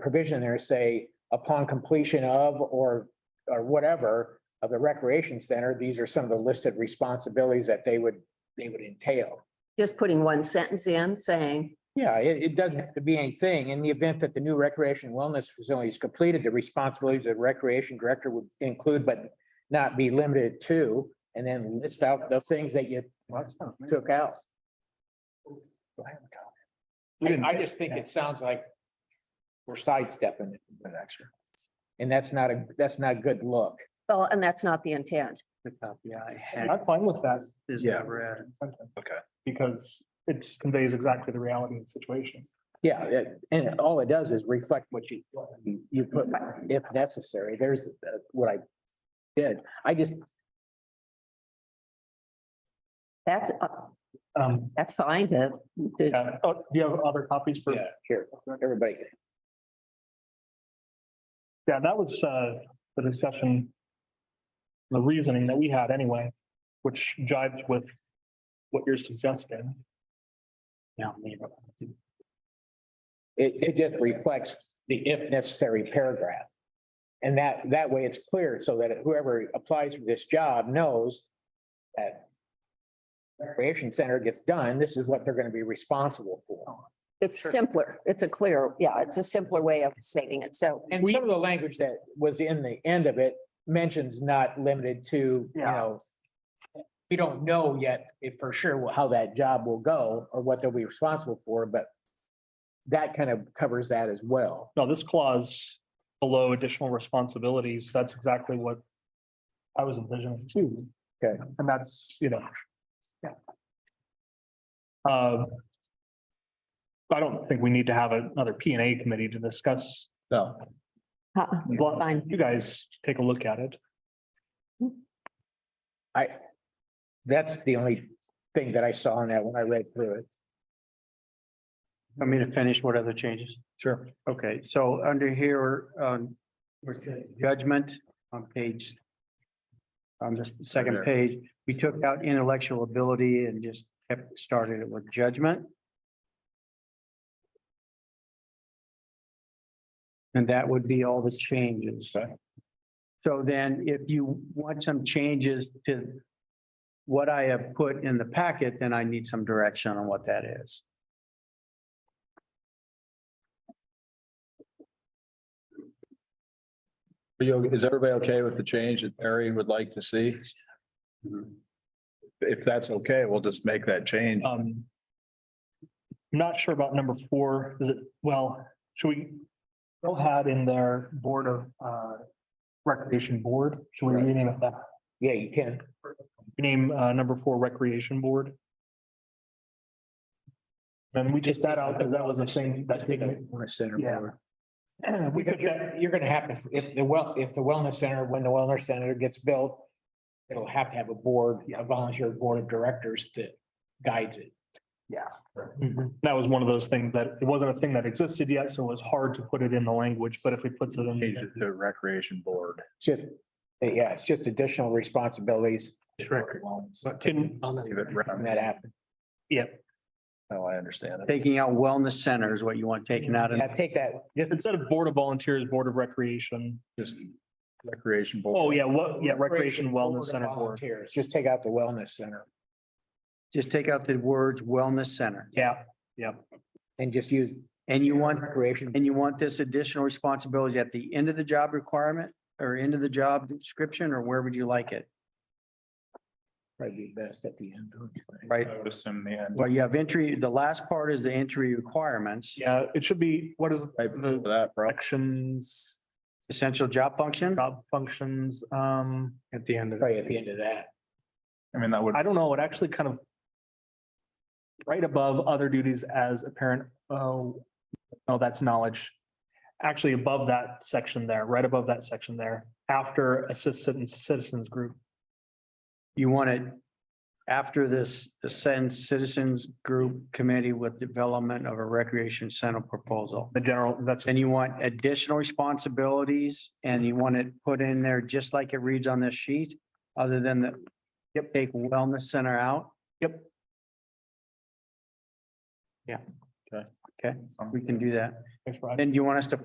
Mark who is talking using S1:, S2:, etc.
S1: provision there say upon completion of or, or whatever of the recreation center, these are some of the listed responsibilities that they would, they would entail.
S2: Just putting one sentence in saying,
S1: Yeah, it, it doesn't have to be anything. In the event that the new recreation wellness facility is completed, the responsibilities of recreation director would include, but not be limited to, and then list out the things that you took out. I, I just think it sounds like we're sidestepping it an extra. And that's not a, that's not a good look.
S2: oh, and that's not the intent.
S3: The copy I had
S4: I'm fine with that.
S3: is
S5: Yeah.
S3: never added.
S5: Okay.
S4: Because it conveys exactly the reality of the situation.
S1: Yeah, it- and all it does is reflect what you, you put, if necessary, there's uh, what I did. I just,
S2: That's, uh,
S4: Um,
S2: that's fine to, to-
S4: yeah. Oh, do you have other copies for?
S1: yeah, here, everybody.
S4: Yeah, that was, uh, the discussion. The reasoning that we had anyway, which jives with what you're suggesting.
S3: Yeah, leave it.
S1: It, it just reflects the if necessary paragraph. And that, that way it's clear so that whoever applies for this job knows that recreation center gets done, this is what they're going to be responsible for.
S2: it's
S3: Sure.
S2: simpler. It's a clear, yeah, it's a simpler way of stating it. So
S1: And some of the language that was in the end of it mentions not limited to, you
S3: Yeah.
S1: know, we don't know yet if for sure how that job will go or what they'll be responsible for, but that kind of covers that as well.
S4: No, this clause below additional responsibilities, that's exactly what I was envisioning too.
S1: Okay.
S4: And that's, you know. Um, I don't think we need to have another P and A committee to discuss.
S1: So.
S2: uh,
S4: Well,
S2: fine.
S4: You guys take a look at it.
S1: I, that's the only thing that I saw in that when I read through it.
S3: Want me to finish what other changes? Sure. Okay, so under here, um, where's the judgment on page. On the second
S5: there.
S3: page, we took out intellectual ability and just kept, started it with judgment. And that would be all the changes. So then if you want some changes to what I have put in the packet, then I need some direction on what that is.
S5: Are you, is everybody okay with the change that Mary would like to see? If that's okay, we'll just make that change.
S4: Um. I'm Not sure about number four, is it, well, should we? Bill had in their board of, uh, recreation board, should we rename it that?
S1: Yeah, you can.
S4: Name, uh, number four recreation board. And we just that out, because that was a thing that's taken.
S1: Want to center
S4: Yeah.
S1: over.
S4: We
S1: Because
S4: took that,
S1: you're, you're gonna have to, if the well, if the wellness center, when the wellness center gets built, it'll have to have a board, a volunteer board of directors that guides it.
S4: that was one of those things that, it wasn't a thing that existed yet, so it was hard to put it in the language, but if we put it
S5: Change it
S4: in.
S5: to recreation board.
S1: It's just, yeah, it's just additional responsibilities.
S4: In-
S5: Leave it
S1: When
S5: round.
S1: that happens.
S4: Yeah,
S5: No, I understand it.
S3: Taking out wellness center is what you want taken out of.
S1: Yeah, take that,
S4: instead of board of volunteers, board of recreation.
S5: Just recreation board.
S4: Oh, yeah, what, yeah,
S1: Recreation
S4: recreation
S1: Board
S4: wellness
S1: of
S4: center board.
S1: volunteers, just take out the wellness center
S3: Just take out the words wellness center.
S4: Yeah,
S1: and just use.
S3: And you want,
S1: Recreation,
S3: and you want this additional responsibilities at the end of the job requirement or end of the job description, or where would you like it?
S1: probably be best at the end. don't you think?
S3: Right?
S5: I would assume the end.
S3: Well, you have entry, the last part is the entry requirements,
S4: yeah, it should be, what is
S5: Right,
S4: the
S5: for That, bro.
S4: actions,
S3: essential job function.
S4: job functions, um,
S3: At the end of.
S1: Probably at the end of that.
S5: I mean, that would,
S4: I don't know, it actually kind of right above other duties as a parent, oh, oh, that's knowledge. Actually above that section there, right above that section there, after assistant citizens group.
S3: You want it after this, the send citizens group committee with development of a recreation center proposal.
S4: The general, that's,
S3: And you want additional responsibilities and you want it put in there just like it reads on this sheet, other than the, yep, take wellness center out.
S4: Yep.
S3: Yeah.
S5: Okay.
S3: Okay, we can do that.
S4: thanks, Rod.
S3: And you want us to